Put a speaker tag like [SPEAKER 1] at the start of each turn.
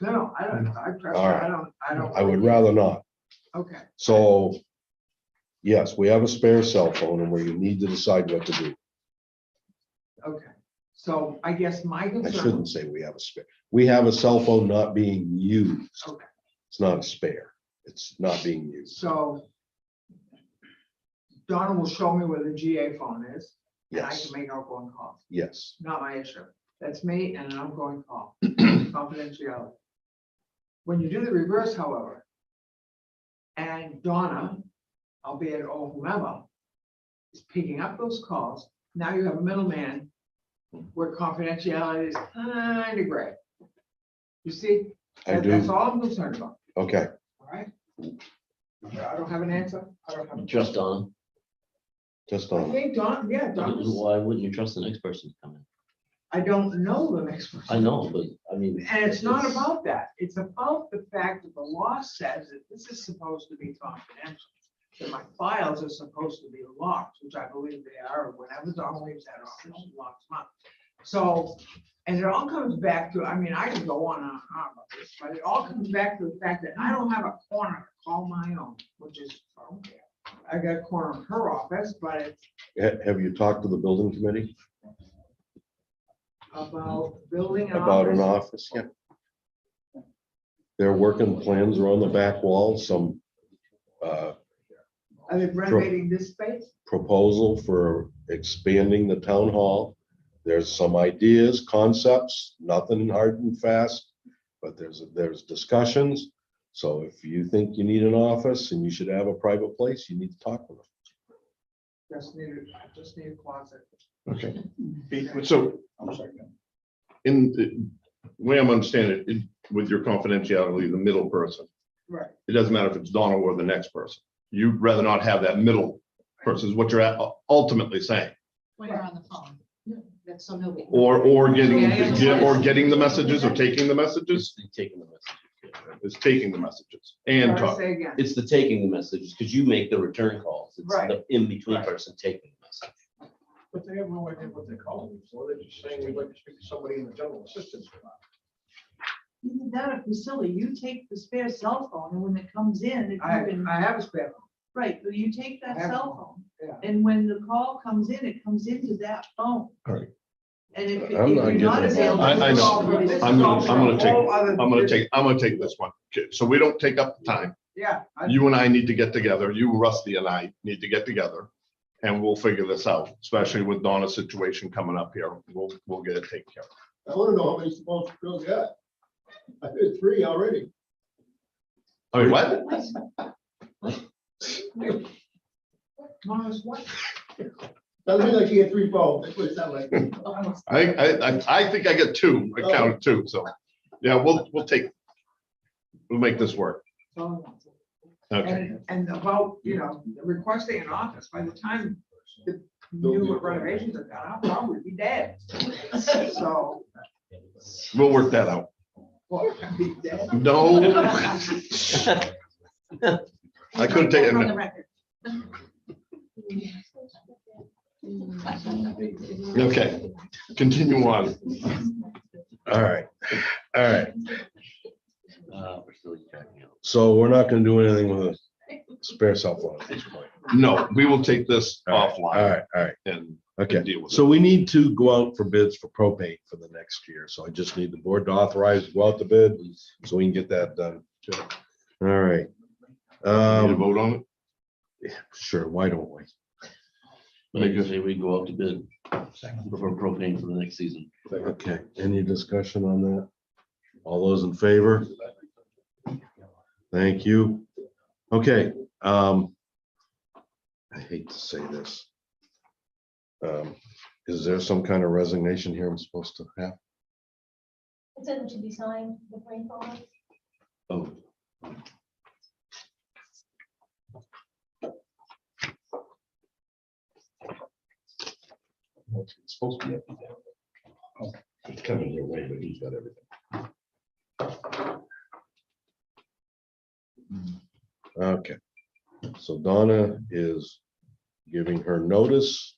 [SPEAKER 1] No, no, I don't, know. I trust you.
[SPEAKER 2] All right.
[SPEAKER 1] I don't, I don't.
[SPEAKER 2] I would rather not.
[SPEAKER 1] Okay,
[SPEAKER 2] So, yes, we have a spare cell phone and where you need to decide what to do.
[SPEAKER 1] okay. So I guess my
[SPEAKER 2] I
[SPEAKER 1] concern,
[SPEAKER 2] shouldn't say we have a spare. We have a cell phone not being used.
[SPEAKER 1] Okay.
[SPEAKER 2] It's not a spare. It's not being used.
[SPEAKER 1] so Donna will show me where the GA phone is, and I
[SPEAKER 2] Yes,
[SPEAKER 1] can make outgoing calls.
[SPEAKER 2] yes.
[SPEAKER 1] Not my issue. That's me and an outgoing call, confidentiality. When you do the reverse, however, and Donna, albeit or whomever, is picking up those calls, now you have a middleman where confidentiality is kind of gray. You see?
[SPEAKER 2] I
[SPEAKER 1] That- That's
[SPEAKER 2] do.
[SPEAKER 1] all I'm concerned about,
[SPEAKER 2] Okay,
[SPEAKER 1] all right? I don't have an answer. I don't have.
[SPEAKER 3] Trust Donna.
[SPEAKER 2] just um,
[SPEAKER 1] I
[SPEAKER 2] on.
[SPEAKER 1] think Don, yeah, Don, was-
[SPEAKER 3] Why wouldn't you trust the next person to come in?
[SPEAKER 1] I don't know the next one.
[SPEAKER 3] I know, but I mean.
[SPEAKER 1] And it's not about that. It's about the fact that the law says that this is supposed to be confidential. That my files are supposed to be locked, which I believe they are, whenever Don leaves that office, she locks them up. So, and it all comes back to, I mean, I can go on and on about this, but it all comes back to the fact that I don't have a corner to call my own, which is, I don't care. I got a corner in her office, but it's
[SPEAKER 2] Ha- Have you talked to the building committee
[SPEAKER 1] about building an
[SPEAKER 2] about an
[SPEAKER 1] office.
[SPEAKER 2] office? Yeah. Their working plans are on the back wall, some uh,
[SPEAKER 1] Are they renovating this space?
[SPEAKER 2] proposal for expanding the town hall. There's some ideas, concepts, nothing hard and fast, but there's, there's discussions. So if you think you need an office and you should have a private place, you need to talk with them.
[SPEAKER 1] Just need, a- I just need a closet.
[SPEAKER 4] Okay. So
[SPEAKER 5] I'm sorry.
[SPEAKER 4] in the way I'm understanding it, in- with your confidentiality, the middle person,
[SPEAKER 1] Right.
[SPEAKER 4] it doesn't matter if it's Donna or the next person. You'd rather not have that middle person is what you're at- ultimately saying,
[SPEAKER 6] when you're on the phone. That's so nobody.
[SPEAKER 4] or, or getting,
[SPEAKER 1] Yeah, yeah, yeah.
[SPEAKER 4] or getting the messages or taking the messages,
[SPEAKER 3] Just taking the message.
[SPEAKER 4] is taking the messages and
[SPEAKER 1] Sorry,
[SPEAKER 4] talking.
[SPEAKER 1] Say again.
[SPEAKER 3] It's the taking the messages, because you make the return calls. It's
[SPEAKER 1] Right.
[SPEAKER 3] the in-between
[SPEAKER 5] Right.
[SPEAKER 3] person taking the message.
[SPEAKER 5] But they have no idea what they're calling me for. They're just saying we'd like to speak to somebody in the general assistance. department.
[SPEAKER 7] Either that or Priscilla, you take the spare cell phone and when it comes in, if
[SPEAKER 1] I,
[SPEAKER 7] you can,
[SPEAKER 1] I have a spare. one.
[SPEAKER 7] right, so you take that
[SPEAKER 1] I have
[SPEAKER 7] cell
[SPEAKER 1] one,
[SPEAKER 7] phone. And when the call comes in, it comes into that phone.
[SPEAKER 2] Right.
[SPEAKER 7] And if if
[SPEAKER 2] I'm
[SPEAKER 7] you're
[SPEAKER 2] not
[SPEAKER 7] not
[SPEAKER 2] getting
[SPEAKER 7] available.
[SPEAKER 4] that. I- I
[SPEAKER 7] it's
[SPEAKER 4] know.
[SPEAKER 7] always-
[SPEAKER 1] This is
[SPEAKER 4] I'm gonna-
[SPEAKER 1] all
[SPEAKER 4] I'm gonna
[SPEAKER 1] for a whole
[SPEAKER 4] take-
[SPEAKER 1] other-
[SPEAKER 4] I'm gonna take, I'm gonna take this one. Okay, So we don't take up the time.
[SPEAKER 1] Yeah. I-
[SPEAKER 4] you and I need to get together, you, Rusty and I need to get together. And we'll figure this out, especially with Donna's situation coming up here. We'll, we'll get it taken care of.
[SPEAKER 5] I want to know how many small girls you got. I did three already.
[SPEAKER 4] I mean, what?
[SPEAKER 1] Mars, what?
[SPEAKER 5] Doesn't mean like you had three phones. That's what it sounded like.
[SPEAKER 4] I, think- I, I, I think I get two,
[SPEAKER 2] Oh.
[SPEAKER 4] I counted two, so, yeah, we'll, we'll take. We'll make this work.
[SPEAKER 1] So,
[SPEAKER 4] Okay,
[SPEAKER 1] And, and about, you know, requesting an office, by the time the new renovations are done, I'll probably be dead. So,
[SPEAKER 4] we'll work that out.
[SPEAKER 1] well, I'd be dead.
[SPEAKER 4] No. I couldn't take
[SPEAKER 7] On the
[SPEAKER 4] it.
[SPEAKER 7] record.
[SPEAKER 4] Okay, continue on.
[SPEAKER 2] All right, all right.
[SPEAKER 3] Uh, we're still checking out.
[SPEAKER 2] So we're not gonna do anything with a spare cell phone at this point.
[SPEAKER 4] No, we will take this
[SPEAKER 2] All
[SPEAKER 4] offline
[SPEAKER 2] right, all right.
[SPEAKER 4] and
[SPEAKER 2] Okay.
[SPEAKER 4] deal with it.
[SPEAKER 2] So we need to go out for bids for propane for the next year. So I just need the board to authorize, to go out to bid, so we can get that done. All right.
[SPEAKER 4] Need to
[SPEAKER 2] Um,
[SPEAKER 4] vote on it?
[SPEAKER 2] sure, why don't we?
[SPEAKER 3] Like I say, we go out to bid for propane for the next season.
[SPEAKER 2] Okay, any discussion on that? All those in favor? Thank you. Okay, um. I hate to say this. Um, is there some kind of resignation here I'm supposed to have?
[SPEAKER 8] It said it should be signed, the green folder.
[SPEAKER 2] Oh. It's supposed to be. up there. It's coming your way, but he's got everything. Okay, so Donna is giving her notice